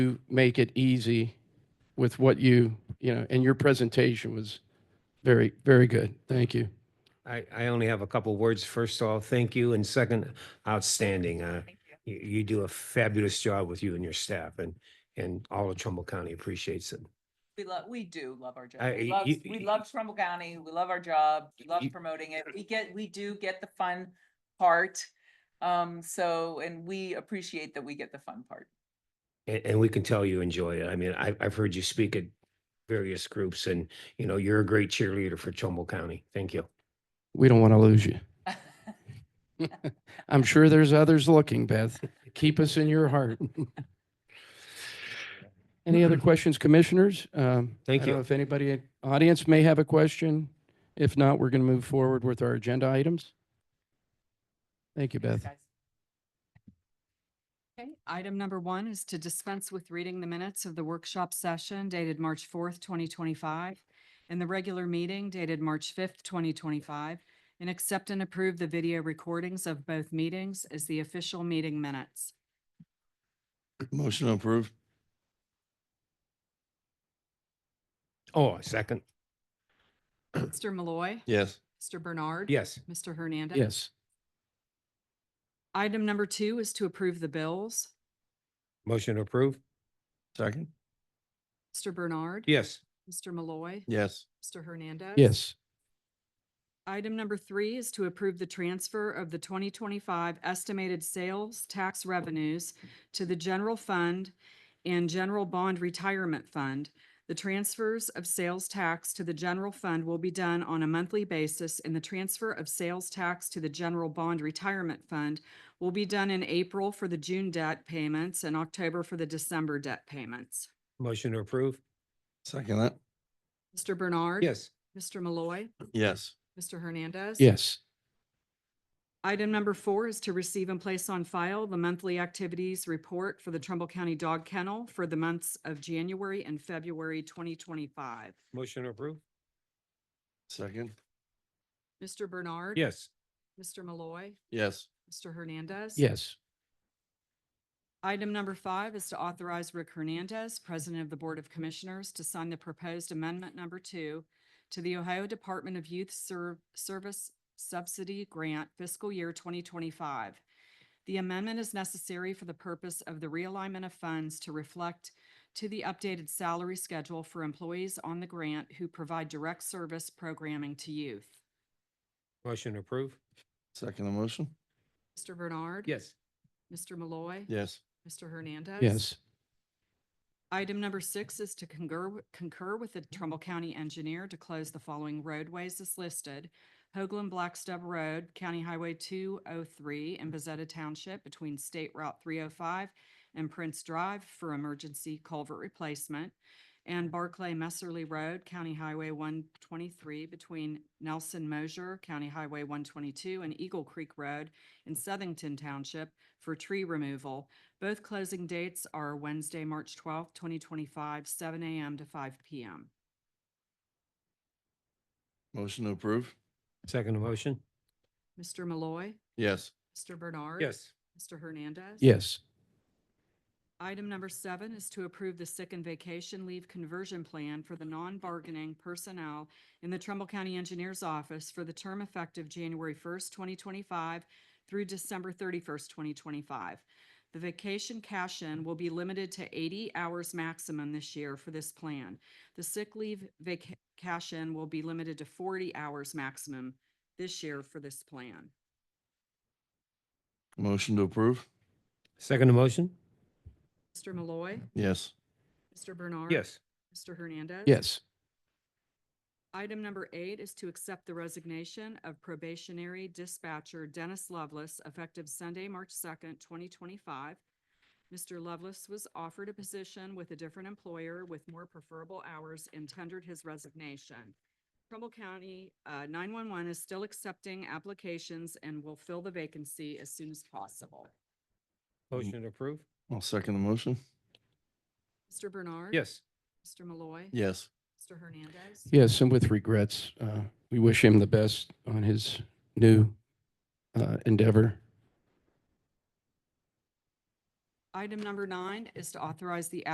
you make it easy with what you, you know, and your presentation was very, very good. Thank you. I, I only have a couple words. First off, thank you. And second, outstanding. Uh, you, you do a fabulous job with you and your staff and, and all of Trumbull County appreciates it. We love, we do love our job. I- We love, you- we love Trumbull County. We love our job. We love You- promoting it. We get, we do get the fun part. Um, so, and we appreciate that we get the fun part. And, and we can tell you enjoy it. I mean, I, I've heard you speak at various groups and, you know, you're a great cheerleader for Trumbull County. Thank you. We don't want to lose you. I'm sure there's others looking, Beth. Keep us in your heart. Any other questions, commissioners? Um, Thank I don't you. know If anybody, in audience may have a question. If not, we're going to move forward with our agenda items. Thank you, Beth. Thanks, guys. Okay, item number one is to dispense with reading the minutes of the workshop session dated March fourth, twenty twenty-five, and the regular meeting dated March fifth, twenty twenty-five, and accept and approve the video recordings of both meetings as the official meeting minutes. Motion approved. Oh, a second. Mr. Malloy. Yes. Mr. Bernard. Yes. Mr. Hernandez. Yes, Item number two is to approve the bills. Motion approved. Second? Mr. Bernard. Yes. Mr. Malloy. Yes. Mr. Hernandez. yes, Item number three is to approve the transfer of the 2025 estimated sales tax revenues to the general fund and general bond retirement fund. The transfers of sales tax to the general fund will be done on a monthly basis, and the transfer of sales tax to the general bond retirement fund will be done in April for the June debt payments and October for the December debt payments. Motion approved. Second that? Mr. Bernard. Yes. Mr. Malloy. Yes. Mr. Hernandez. yes, Item number four is to receive and place on file the monthly activities report for the Trumbull County Dog Kennel for the months of January and February twenty twenty-five. Motion approved. Second? Mr. Bernard. Yes. Mr. Malloy. Yes. Mr. Hernandez. yes, Item number five is to authorize Rick Hernandez, President of the Board of Commissioners, to sign the proposed amendment number two to the Ohio Department of Youth Serv- Service Subsidy Grant fiscal year twenty twenty-five. The amendment is necessary for the purpose of the realignment of funds to reflect to the updated salary schedule for employees on the grant who provide direct service programming to youth. Motion approved. Second the motion? Mr. Bernard. Yes. Mr. Malloy. Yes. Mr. Hernandez. yes, Item number six is to concur, w- concur with the Trumbull County Engineer to close the following roadways as listed. Hoagland Blackstub Road, County Highway two oh three in Bezetta Township between State Route three oh five and Prince Drive for emergency culvert replacement. And Barclay Messerly Road, County Highway one twenty-three between Nelson Mosier, County Highway one twenty-two and Eagle Creek Road in Southington Township for tree removal. Both closing dates are Wednesday, March twelfth, twenty twenty-five, seven AM to five PM. Motion approved. Second motion. Mr. Malloy, Yes. Mr. Bernard. Yes. Mr. Hernandez. yes, Item number seven is to approve the sick and vacation leave conversion plan for the non-bargaining personnel in the Trumbull County Engineers Office for the term effective January first, twenty twenty-five through December thirty-first, twenty twenty-five. The vacation cash-in will be limited to eighty hours maximum this year for this plan. The sick leave vac- cash-in will be limited to forty hours maximum this year for this plan. Motion to approve? Second motion. Mr. Malloy, Yes. Mr. Bernard. Yes. Mr. Hernandez. yes, Item number eight is to accept the resignation of probationary dispatcher Dennis Lovelace effective Sunday, March second, twenty twenty-five. Mr. Lovelace was offered a position with a different employer with more preferable hours and tendered his resignation. Trumbull County uh, nine-one-one is still accepting applications and will fill the vacancy as soon as possible. Motion approved. I'll second the motion. Mr. Bernard. Yes. Mr. Malloy. Yes. Mr. Hernandez. yes, and with regrets, uh, we wish him the best on his new, uh, endeavor. Item number nine is to authorize the